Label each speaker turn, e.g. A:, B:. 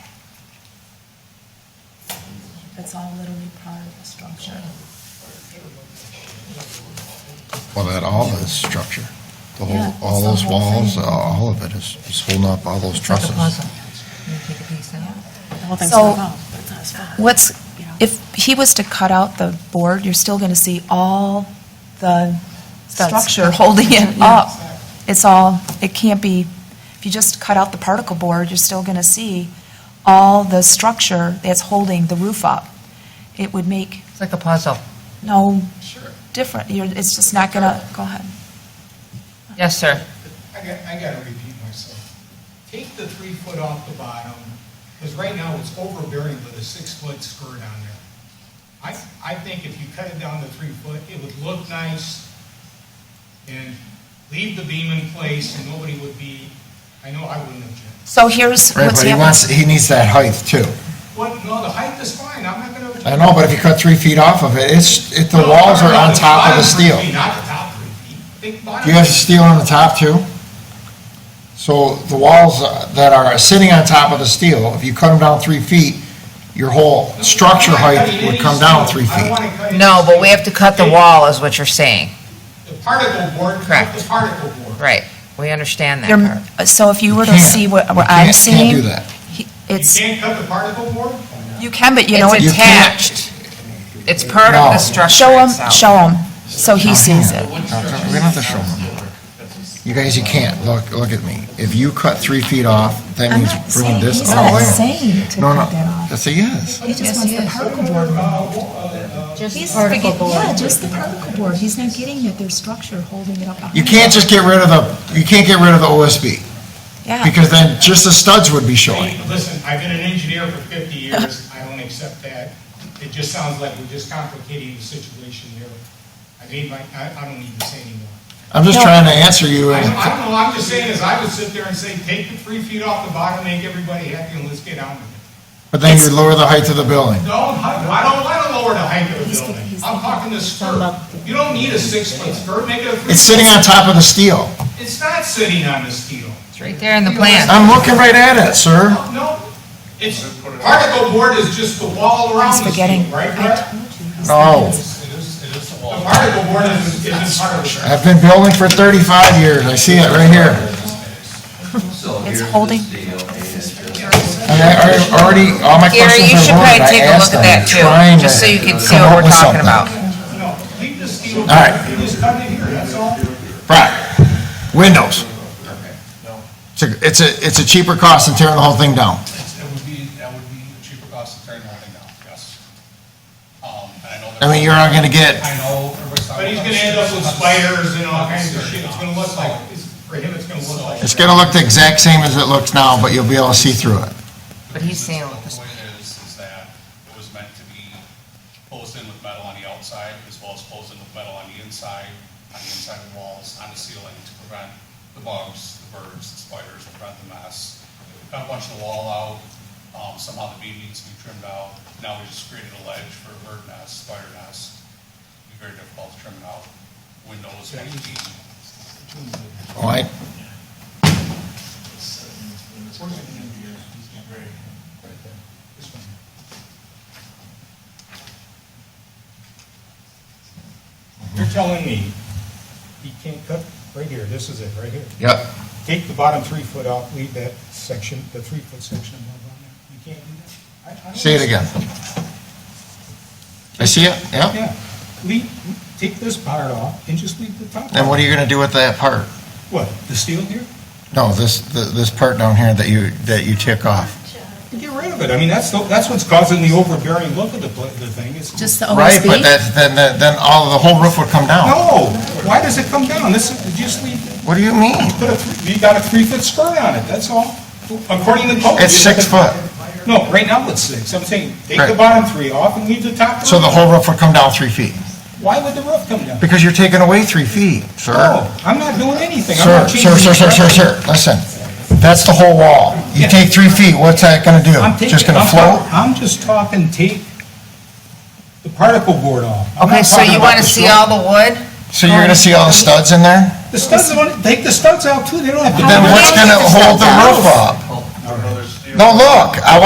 A: It's all literally part of the structure.
B: Well, that all is structure. The
A: Yeah,
B: whole, all
A: it's the
B: those
A: whole
B: walls,
A: thing.
B: uh, all of it is, is holding up all those
C: It's like a
B: trusses.
C: puzzle. You take a piece out.
A: The whole thing's
D: So-
A: involved, but it's not as fun.
D: What's, if he was to cut out the board, you're still going to see all the
C: Studs.
D: structure holding it up. It's all, it can't be, if you just cut out the particle board, you're still going to see all the structure that's holding the roof up. It would make
C: It's like a puzzle.
D: no
E: Sure.
D: different, you're, it's just not going to, go ahead.
C: Yes, sir.
E: I got, I gotta repeat myself. Take the three foot off the bottom, because right now it's overbearing with a six foot skirt on there. I, I think if you cut it down to three foot, it would look nice and leave the beam in place and nobody would be, I know I wouldn't object.
D: So here's
B: Right,
D: what's
B: but he wants,
D: happening.
B: he needs that height too.
E: What, no, the height is fine, I'm not gonna.
B: I know, but if you cut three feet off of it, it's, it, the
E: No,
B: walls are
E: no,
B: on
E: the
B: top of
E: bottom
B: the
E: three
B: steel.
E: feet, Not the top three feet, think bottom.
B: Do you have steel on the top too? So the walls uh, that are sitting on top of the steel, if you cut them down three feet, your whole structure height would come down three
E: I don't
B: feet.
E: wanna cut any
C: No, but we have to cut the
E: Take
C: wall, is what you're saying.
E: The particle board, cut
C: Correct.
E: the particle board.
C: Right. We understand that
D: You're-
C: part.
D: So if you were to
B: can't-
D: see what
B: you
D: what
B: can't-
D: I'm
B: can't
D: seeing.
B: do that.
D: he-
E: You
D: It's,
E: can't cut the particle board?
D: you can, but you know,
C: It's
B: You
D: it
B: can't-
C: attached. It's part of
B: No.
C: the structure
D: show him, Oh,
C: itself.
D: show him, so he sees it.
B: No, We don't have to show them. You guys, you can't. Look, look at me. If you cut three feet off, that means bringing this
D: he's
B: all the
D: not
B: way.
D: saying to
B: No,
D: cut
B: no,
D: that off.
B: that's a yes.
D: He just wants the particle board. He's forget- Yeah, just the particle board. He's not getting that there's structure holding it up.
B: You can't just get rid of the, you can't get rid of the OSB,
D: Yeah,
B: because then just the studs would be showing.
E: Hey, Listen, I've been an engineer for 50 years, I don't accept that. It just sounds like we're just complicating the situation here. I mean, my- I I don't need to say anymore.
B: I'm just
D: No.
B: trying to answer you,
E: I don't
B: and
E: I don't know, I'm just saying is I would sit there and say, take the three feet off the bottom, make everybody happy, and let's get on with it.
B: but then you lower the height of the building.
E: No, I don't want to lower the height of the
A: He's-
E: building.
A: he's-
E: I'm talking the skirt. You don't need a six-foot skirt, make it a three.
B: It's sitting on top of the steel.
E: It's not sitting on the steel.
C: It's right there in the plan.
B: I'm looking right at it, sir.
E: No, it's, particle board is just the wall around
D: he's
E: the steel,
D: forgetting.
E: right,
D: I
E: Brett?
D: told you, he's
B: No.
D: forgetting.
E: The particle board is, is part of the.
B: I've been building for 35 years. I see it right here.
D: It's holding,
B: I I already, all my
C: Gary, you
B: questions
C: should
B: are
C: probably
B: loaded. I
C: take a look
B: asked
C: at
B: them.
C: that too,
B: Trying to
C: just so you can see
B: come up
C: what we're
B: with
C: talking
B: something.
C: about.
E: No, leave the steel.
B: All right.
E: You just cut it here, that's all.
B: Right. Windows. It's a, it's a, it's a cheaper cost than tearing the whole thing down.
F: It would be, that would be a cheaper cost to turn the thing down, yes. Um, and I know. that-
B: I mean, you're not gonna get,
F: I know. everybody's talking
E: But he's gonna end up with spiders and all kinds of shit. It's gonna look like, it's- for him, it's gonna look like.
B: it's gonna look the exact same as it looks now, but you'll be able to see through it.
C: But he's saying with this-
F: The way it is, is that it was meant to be closed in with metal on the outside, as well as closed in with metal on the inside, on the inside of walls, on the ceiling, to prevent the bugs, the birds, the spiders, to prevent the mess. We Cut a bunch of the wall out, um, somehow the beam needs to be trimmed out, now we just created a ledge for a bird nest, spider nest. It'd Be very difficult to trim it out, windows, might be,
B: All right?
E: You're telling me, he can't cut, right here, this is it, right here.
B: Yep.
E: Take the bottom three foot off, leave that section, the three foot section above on there. You can't do that? I- I don't
B: See it again. I see it, yep.
E: Yeah, leave, take this part off and just leave the top.
B: And what are you gonna do with that part?
E: What, the steel here?
B: No, this, th- this part down here that you, that you took off.
E: Get rid of it. I mean, that's, the- that's what's causing the overbearing look of the, pla- the thing is.
A: Just the
B: Right, but
A: OSB?
B: that, then, then- then all, the whole roof would come down.
E: Oh, No, why does it come down? This, is- just leave,
B: What do you mean?
E: put a, three- you got a three foot skirt on it, that's all. According to code.
B: It's six foot,
E: No, right now it's six. I'm saying, take the
B: Right.
E: bottom three off and leave the top.
B: so
E: three.
B: the whole roof would come down three feet.
E: Why would the roof come down?
B: Because you're taking away three feet, sir.
E: No, Oh, I'm not doing anything. I'm
B: Sir,
E: not changing.
B: sir, sir, sir, sir, sir, listen, that's the whole wall. You
E: Yeah.
B: take three feet, what's that gonna do?
E: I'm taking-
B: Just gonna
E: I'm
B: float?
E: talk- I'm just talking, take the particle board off. I'm
C: Okay,
E: not
C: so
E: talking
C: you
E: about
C: want to
E: the
C: see
E: skirt.
C: all the wood?
B: So you're gonna see all the studs in there?
E: The studs, on- take the studs out too, they don't have to.
B: Then
E: be-
B: what's gonna hold the roof up? No, look, I